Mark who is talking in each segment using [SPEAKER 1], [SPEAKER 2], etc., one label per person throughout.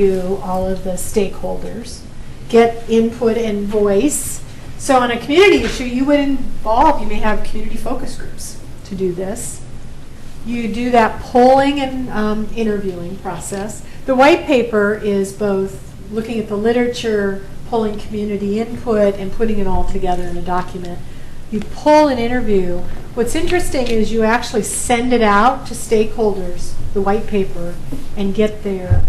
[SPEAKER 1] to all of the stakeholders, get input and voice. So on a community issue, you would involve, you may have community focus groups to do this. You do that polling and um, interviewing process. The white paper is both looking at the literature, pulling community input, and putting it all together in a document. You pull an interview. What's interesting is you actually send it out to stakeholders, the white paper, and get their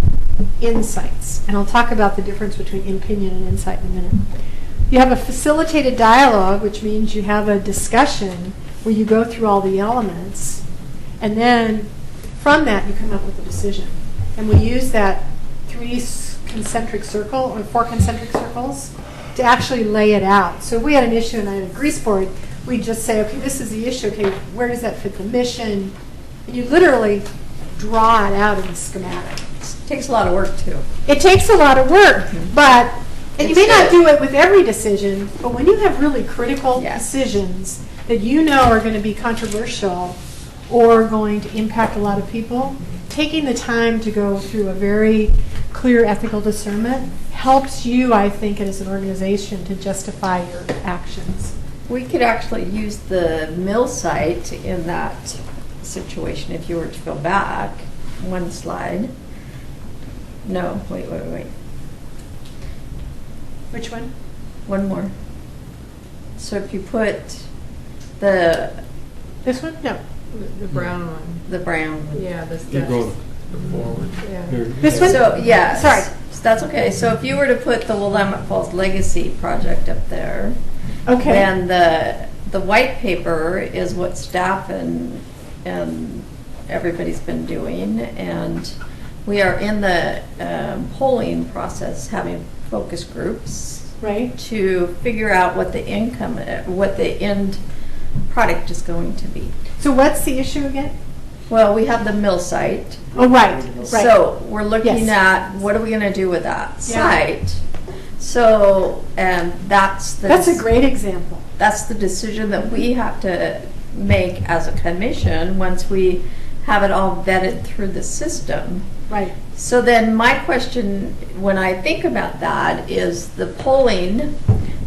[SPEAKER 1] insights. And I'll talk about the difference between opinion and insight in a minute. You have a facilitated dialogue, which means you have a discussion where you go through all the elements. And then from that, you come up with a decision. And we use that three s- concentric circle or four concentric circles to actually lay it out. So if we had an issue and I had a grease board, we'd just say, okay, this is the issue. Okay, where does that fit the mission? And you literally draw it out in the schematic.
[SPEAKER 2] Takes a lot of work too.
[SPEAKER 1] It takes a lot of work, but, and you may
[SPEAKER 2] Mm-hmm. It's
[SPEAKER 1] not
[SPEAKER 2] good.
[SPEAKER 1] do it with every decision, but when you have really critical
[SPEAKER 2] Yeah.
[SPEAKER 1] decisions that you know are going to be controversial or going to impact a lot of people, taking the time to go through a very clear ethical discernment helps you, I think, as an organization to justify your actions.
[SPEAKER 2] We could actually use the mill site in that situation if you were to go back one slide. No, wait, wait, wait,
[SPEAKER 1] Which one?
[SPEAKER 2] one more. So if you put the,
[SPEAKER 1] This one? No.
[SPEAKER 3] The brown one,
[SPEAKER 2] the brown. one.
[SPEAKER 3] yeah, the
[SPEAKER 4] You
[SPEAKER 3] steps.
[SPEAKER 4] go forward.
[SPEAKER 3] Yeah.
[SPEAKER 4] Here.
[SPEAKER 1] This one?
[SPEAKER 2] So, yeah.
[SPEAKER 1] Sorry.
[SPEAKER 2] That's okay. So if you were to put the Willamette Falls Legacy Project up there, Oh,
[SPEAKER 1] Okay.
[SPEAKER 2] Then the, the white paper is what staff and, and everybody's been doing, and we are in the um, polling process, having focus groups
[SPEAKER 1] Right?
[SPEAKER 2] to figure out what the income, uh, what the end product is going to be.
[SPEAKER 1] So what's the issue again?
[SPEAKER 2] Well, we have the mill site,
[SPEAKER 1] Oh, right, right.
[SPEAKER 2] so we're looking
[SPEAKER 1] Yes.
[SPEAKER 2] at, what are we gonna do with that
[SPEAKER 1] Yeah.
[SPEAKER 2] site? So, and that's the.
[SPEAKER 1] That's a great example.
[SPEAKER 2] that's the decision that we have to make as a commission once we have it all vetted through the system.
[SPEAKER 1] Right.
[SPEAKER 2] So then my question, when I think about that, is the polling.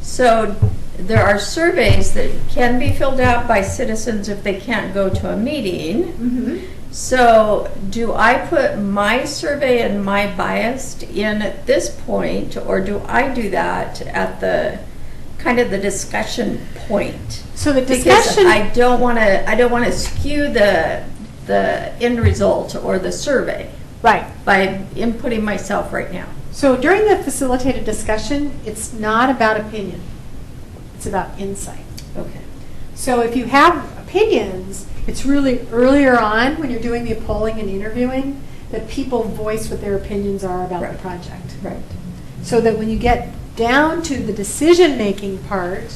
[SPEAKER 2] So there are surveys that can be filled out by citizens if they can't go to a meeting.
[SPEAKER 1] Mm-hmm.
[SPEAKER 2] So, do I put my survey and my bias in at this point, or do I do that at the kind of the discussion point?
[SPEAKER 1] So the
[SPEAKER 2] Because
[SPEAKER 1] discussion.
[SPEAKER 2] I don't want to, I don't want to skew the the end result or the survey
[SPEAKER 1] Right.
[SPEAKER 2] by inputting myself right now.
[SPEAKER 1] So during the facilitated discussion, it's not about opinion. It's about insight.
[SPEAKER 2] Okay.
[SPEAKER 1] So if you have opinions, it's really earlier on when you're doing the polling and interviewing that people voice what their opinions are about the
[SPEAKER 2] Right.
[SPEAKER 1] project.
[SPEAKER 2] Right.
[SPEAKER 1] So that when you get down to the decision-making part,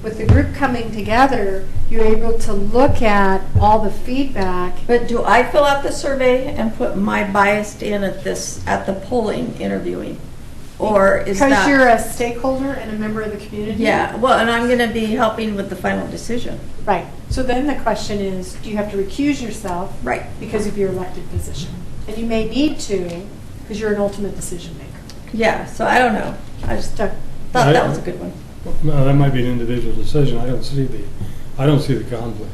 [SPEAKER 1] with the group coming together, you're able to look at all the feedback.
[SPEAKER 2] But do I fill out the survey and put my bias in at this at the polling interviewing, or is that
[SPEAKER 1] Because you're a stakeholder and a member of the community.
[SPEAKER 2] Yeah, well, and I'm going to be helping with the final decision.
[SPEAKER 1] Right. So then the question is, do you have to recuse yourself
[SPEAKER 2] Right.
[SPEAKER 1] because of your elected position? And you may need to because you're an ultimate decision maker.
[SPEAKER 2] Yeah, so I don't know. I just
[SPEAKER 1] So,
[SPEAKER 2] thought that was a good one.
[SPEAKER 4] No, that might be an individual decision. I don't see the, I don't see the conflict.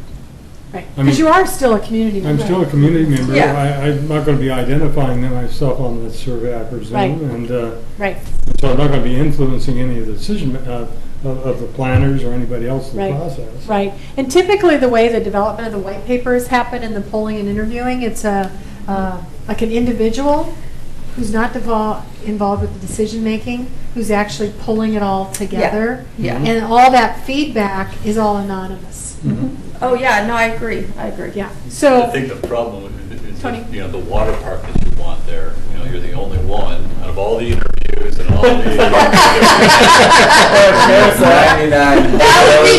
[SPEAKER 1] right.
[SPEAKER 4] I mean-
[SPEAKER 1] Because you are still a community
[SPEAKER 4] I'm
[SPEAKER 1] member.
[SPEAKER 4] still a community member.
[SPEAKER 2] Yeah.
[SPEAKER 4] I, I'm not going to be identifying them myself on the survey, I presume.
[SPEAKER 1] Right.
[SPEAKER 4] And uh,
[SPEAKER 1] Right.
[SPEAKER 4] so I'm not going to be influencing any of the decision, uh, of of the planners or anybody else in the
[SPEAKER 1] Right.
[SPEAKER 4] process.
[SPEAKER 1] Right. And typically, the way the development of the white papers happen in the polling and interviewing, it's a, uh, like an individual who's not devol- involved with the decision making, who's actually pulling it all together.
[SPEAKER 2] Yeah.
[SPEAKER 4] Mhm.
[SPEAKER 1] And all that feedback is all anonymous.
[SPEAKER 4] Mhm.
[SPEAKER 2] Oh, yeah, no, I agree. I agree.
[SPEAKER 1] Yeah. So.
[SPEAKER 5] I think the problem is- is,
[SPEAKER 1] Tony.
[SPEAKER 5] that, you know, the water park that you want there, you know, you're the only one out of all the interviews and all
[SPEAKER 2] That would be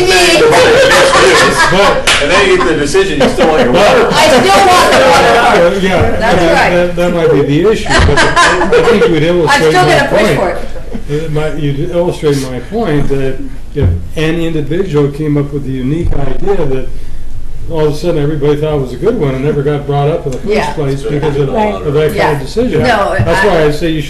[SPEAKER 2] me.
[SPEAKER 5] the. And then you get the decision, you still want your water.
[SPEAKER 2] I still want the water park.
[SPEAKER 4] Uh, Yeah.
[SPEAKER 2] That's
[SPEAKER 4] that-
[SPEAKER 2] right.
[SPEAKER 4] that- That might be the issue, but I think you would
[SPEAKER 2] I'm
[SPEAKER 4] illustrate
[SPEAKER 2] still
[SPEAKER 4] my
[SPEAKER 2] going to push
[SPEAKER 4] point.
[SPEAKER 2] for it.
[SPEAKER 4] Uh, my- You illustrate my point that if an individual came up with a unique idea that all of a sudden, everybody thought it was a good one and never got brought up in the
[SPEAKER 2] Yeah.
[SPEAKER 4] first place
[SPEAKER 5] So
[SPEAKER 4] because
[SPEAKER 5] it
[SPEAKER 4] of
[SPEAKER 5] didn't
[SPEAKER 4] of that kind
[SPEAKER 1] Yeah.
[SPEAKER 4] of decision.
[SPEAKER 2] No,
[SPEAKER 4] That's
[SPEAKER 2] I-
[SPEAKER 4] why I say you